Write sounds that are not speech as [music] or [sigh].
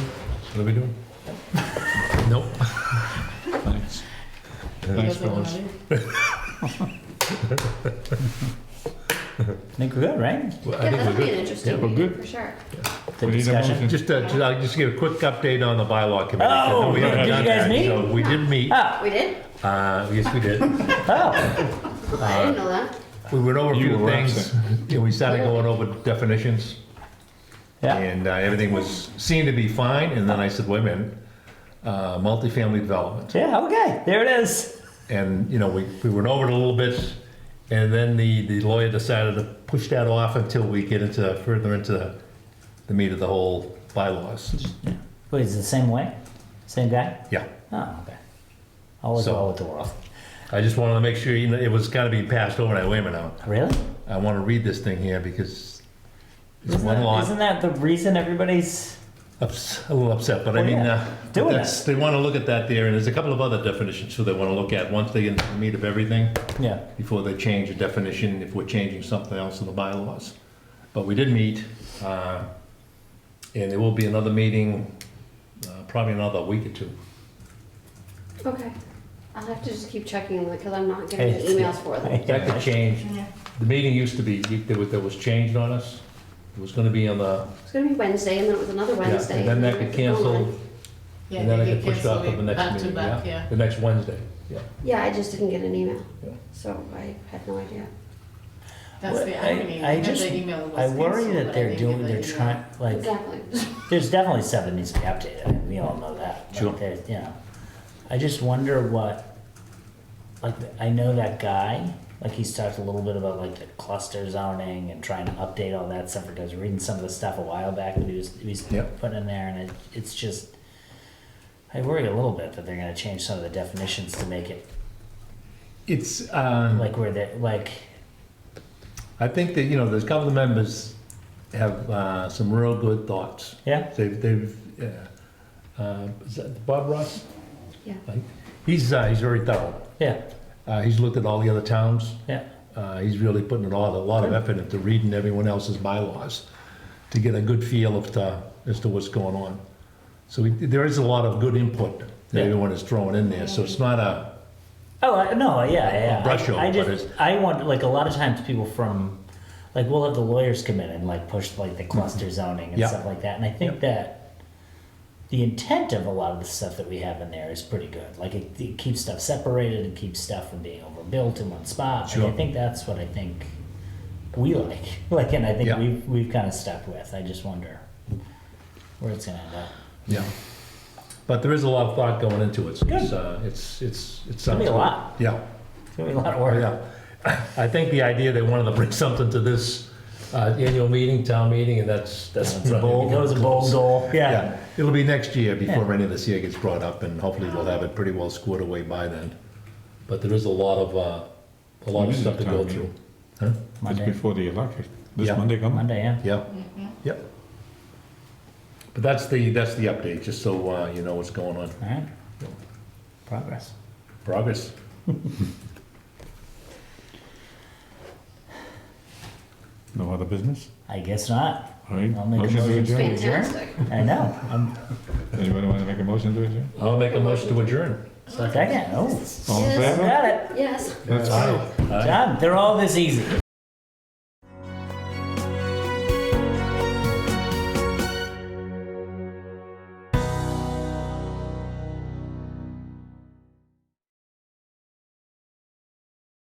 What are we [laughs] doing? Nope. Thanks. Thanks, fellas. I think we're good, right? Well, Yeah, I think that'll we're be an good. interesting Yeah, we're meeting, good. for sure. The We need a discussion. motion. Just, uh, just- I'll just give a quick update on the bylaw committee. Oh, No, we haven't did you done guys that. meet? So We did meet, uh, Ah, We did? yes, we [laughs] did. oh, Uh, I didn't know that. We went over a You few were things, and we started going over definitions. yeah. And uh, everything was, seemed to be fine, and then I said, wait a minute, uh, multifamily development. Yeah, okay, there it is. And, you know, we, we went over it a little bit, and then the, the lawyer decided to push that off until we get into, further into the meat of the whole bylaws. Wait, is it the same way? Same guy? Yeah, Oh, okay. Always So- well with the world. I just wanted to make sure, you know, it was kind of being passed over, and I, wait a minute now, Really? I want to read this thing here because it's Isn't one that- lot. Isn't that the reason everybody's? ups, a little upset, but I Well, mean, Oh, yeah. uh, but Doing it. that's- they want to look at that there, and there's a couple of other definitions too they want to look at once they get into the meat of everything Yeah. before they change a definition if we're changing something else in the bylaws. But we did meet, uh, and there will be another meeting, uh, probably another week or two. Okay. I'll have to just keep checking because I'm not getting Hey, the emails for them. That could change. The meeting used to be there was, there was changed on us. It was going to be on the It's gonna be Wednesday and then it was another yeah, Wednesday. and then that and could then cancel, Oh, Yeah, and then they I get could push off to the canceled next back to meeting. back, yeah. the next Wednesday. Yeah. Yeah, I just didn't get an email, Yeah. so I had no idea. That's the Well, I- irony. I because just- the email was I worry canceled, that but I they're didn't get doing, the they're email. trying, like, Exactly. [laughs] There's definitely stuff that needs to be updated. I mean, we all know that. Sure. Like, there's, you know, I just wonder what, like, I know that guy. Like he's talked a little bit about like the cluster zoning and trying to update all that stuff. Because reading some of the stuff a while back that he was he was Yep. putting in there, and it, it's just I worry a little bit that they're going to change some of the definitions to make it It's um, like where they like I think that, you know, there's a couple of members have uh, some real good thoughts. yeah They've, they've, uh, uh, is that Bob Ross? Yeah. Like, He's, uh, he's very thorough. yeah Uh, he's looked at all the other towns. yeah Uh, he's really putting a lot, a lot of effort into reading everyone else's bylaws to get a good feel of the, as to what's going on. So we, there is a lot of good input that Yeah. everyone is throwing in there. So it's not a, Oh I- no, yeah, yeah. brush I, over, I but just I want like a lot of times people from like we'll have the lawyers come in and like push like the cluster zoning and Mm-hmm. Yeah. stuff like that, and I think that the intent of a lot of the stuff that we have in there is pretty good. Like it, it keeps stuff separated and keeps stuff from being overbuilt in one spot. And Sure. I think that's what I think we like. [laughs] Like, and I think Yeah. we've we've kind of stuck with. I just wonder where it's gonna end up. Yeah. But there is a lot of thought going into it, so it's, uh, it's, it's, it sounds. be a good. lot. Yeah, It's gonna be a lot of oh, work. yeah. I think the idea, they wanted to bring something to this, uh, annual meeting, town meeting, and that's, that's. That's a bold, that was a bold goal. yeah. It'll be next year before any of this year gets brought up, and hopefully we'll have it pretty well squared away by then. But there is a lot of, uh, a lot of When is stuff to the go town through. meeting? Huh? It's Monday. before the election. This Yeah. Monday coming? Monday, yeah. Mm-hmm. Yeah, yeah. But that's the, that's the update, just so, uh, you know what's going on. All right. Progress. Progress. No other business? I guess not. All right. I'll make a to motion. adjourn. Fantastic. I know. I'm Anybody want to make a motion to adjourn? I'll make a motion to adjourn. second. Oh, All in Yes. favor? got it. Yes. That's Aye. Done. They're all this easy.